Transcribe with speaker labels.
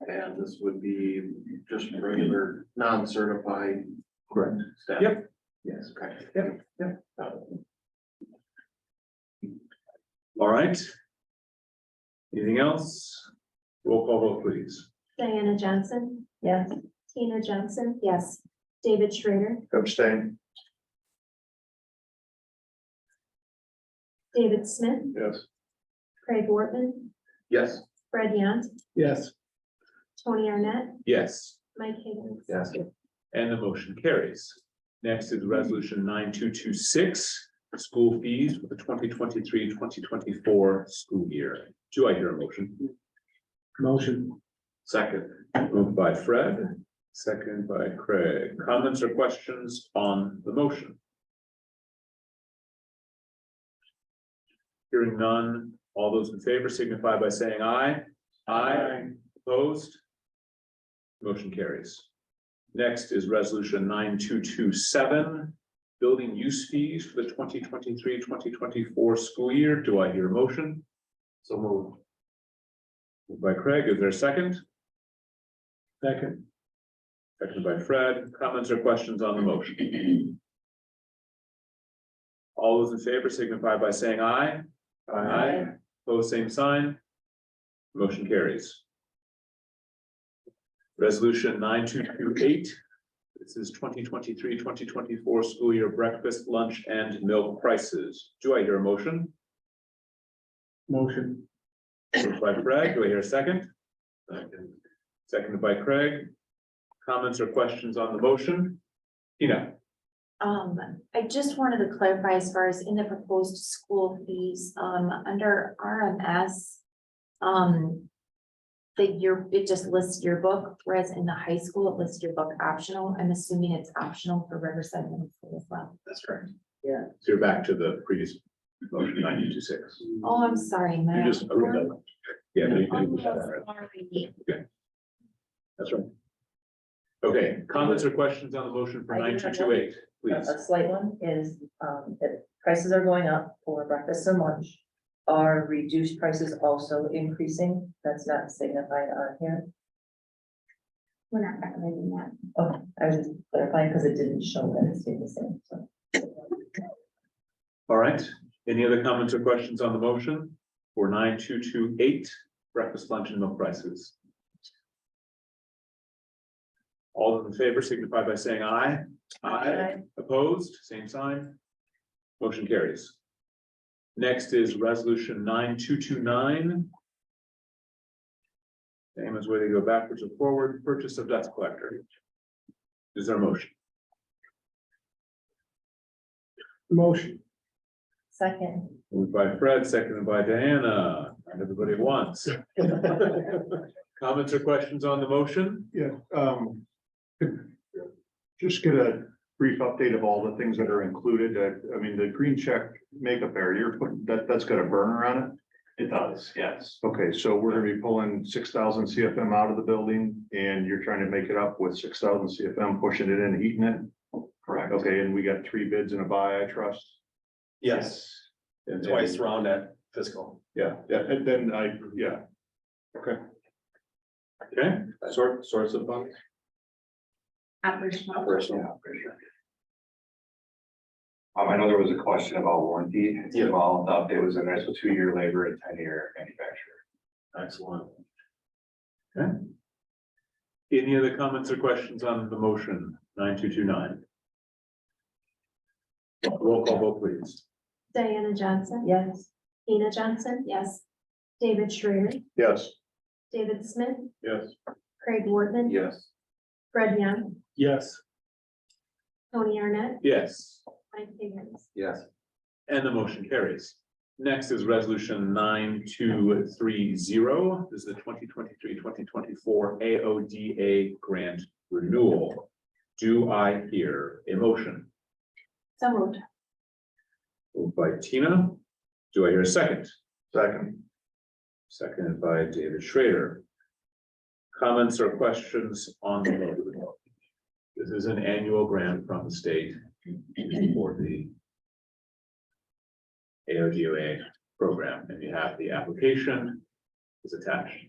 Speaker 1: And this would be just regular, non-certified
Speaker 2: Correct.
Speaker 1: staff.
Speaker 2: Yep. Yes.
Speaker 1: Okay.
Speaker 2: Yep, yep.
Speaker 1: Got it.
Speaker 2: All right. Anything else? Roll call vote, please.
Speaker 3: Diana Johnson,
Speaker 4: Yes.
Speaker 3: Tina Johnson. Yes. David Schrader,
Speaker 1: Abstain.
Speaker 3: David Smith,
Speaker 1: Yes.
Speaker 3: Craig Wortman,
Speaker 1: Yes.
Speaker 3: Fred Yant,
Speaker 2: Yes.
Speaker 3: Tony Arnett,
Speaker 2: Yes,
Speaker 3: Mike Higgins.
Speaker 1: Yes.
Speaker 2: and the motion carries. Next is resolution nine two two six, school fees for the 2023-2024 school year. Do I hear a motion? Motion. Second, moved by Fred, second by Craig. Comments or questions on the motion? Hearing none, all those in favor signify by saying aye. Aye. Opposed? Motion carries. Next is resolution nine two two seven, building use fees for the 2023-2024 school year. Do I hear a motion?
Speaker 1: So move.
Speaker 2: Moved By Craig, is there a second? Second. Second by Fred, comments or questions on the motion? All those in favor signify by saying aye. Aye. Pose same sign. Motion carries. Resolution nine two two eight. This is 2023-2024 school year breakfast, lunch and milk prices. Do I hear a motion? Motion. Moved by Craig, do I hear a second? Second. Seconded by Craig. Comments or questions on the motion? Tina?
Speaker 4: Um, I just wanted to clarify as far as in the proposed school fees, um, under RMS. Um. The year, it just lists your book, whereas in the high school, it lists your book optional. I'm assuming it's optional for Riverside Middle School as well.
Speaker 2: That's correct.
Speaker 5: Yeah.
Speaker 2: So you're back to the previous motion, nine two two six.
Speaker 4: Oh, I'm sorry,
Speaker 2: You
Speaker 4: Matt.
Speaker 2: just. okay, that- Yeah. no, you
Speaker 4: Oh,
Speaker 2: didn't.
Speaker 4: sorry.
Speaker 2: That's right. Okay, comments or questions on the motion for
Speaker 5: I
Speaker 2: nine
Speaker 5: do
Speaker 2: two
Speaker 5: have
Speaker 2: two eight,
Speaker 5: A
Speaker 2: please?
Speaker 5: a slight one is, um, that prices are going up for breakfast and lunch. Are reduced prices also increasing? That's not signified on here.
Speaker 3: We're not recommending that.
Speaker 5: Okay, Oh, I was just clarifying because it didn't show that it stayed the same, so.
Speaker 2: All right, any other comments or questions on the motion for nine two two eight breakfast, lunch and milk prices? All those in favor signify by saying aye. Opposed, same sign. Motion carries. Next is resolution nine two two nine. Same as whether you go backwards or forward, purchase of dust collector. Is there a motion? Motion.
Speaker 5: Second.
Speaker 2: Moved by Fred, seconded by Diana, and everybody at once. Comments or questions on the motion?
Speaker 6: Yeah, um. could- Just get a brief update of all the things that are included. I, I mean, the green check makeup area, you're putting, that, that's got a burner on it.
Speaker 1: It does, yes.
Speaker 6: Okay, so we're gonna be pulling six thousand CFM out of the building and you're trying to make it up with six thousand CFM, pushing it in, heating it.
Speaker 1: Correct.
Speaker 6: Okay, and we got three bids and a buy, I trust.
Speaker 1: Yes. And twice round at fiscal.
Speaker 6: Yeah, yeah, and then I, yeah. Okay,
Speaker 2: Okay,
Speaker 1: Sort, source of funds?
Speaker 4: Operational.
Speaker 1: Operational.
Speaker 7: Um, I know there was a question about warranty
Speaker 1: Yeah.
Speaker 7: involved, the update was in there, so two-year labor and ten-year manufacturer.
Speaker 1: Excellent.
Speaker 2: any other comments or questions on the motion nine two two nine? Roll call vote please.
Speaker 3: Diana Johnson,
Speaker 5: Yes.
Speaker 3: Tina Johnson,
Speaker 4: Yes,
Speaker 3: David Schrader,
Speaker 6: yes.
Speaker 3: David Smith,
Speaker 1: Yes.
Speaker 3: Craig Wortman,
Speaker 1: Yes.
Speaker 3: Fred Yant,
Speaker 2: Yes.
Speaker 3: Tony Arnett,
Speaker 2: Yes,
Speaker 3: Mike Higgins.
Speaker 1: Yes.
Speaker 2: and the motion carries. Next is resolution nine two three zero. This is the 2023-2024 AODA grant renewal. Do I hear a motion?
Speaker 4: so moved.
Speaker 2: Moved by Tina. Do I hear a second?
Speaker 6: Second,
Speaker 2: Seconded by David Schrader. Comments or questions on the motion? This is an annual grant from the state for the AODOA program, and you have the application is attached.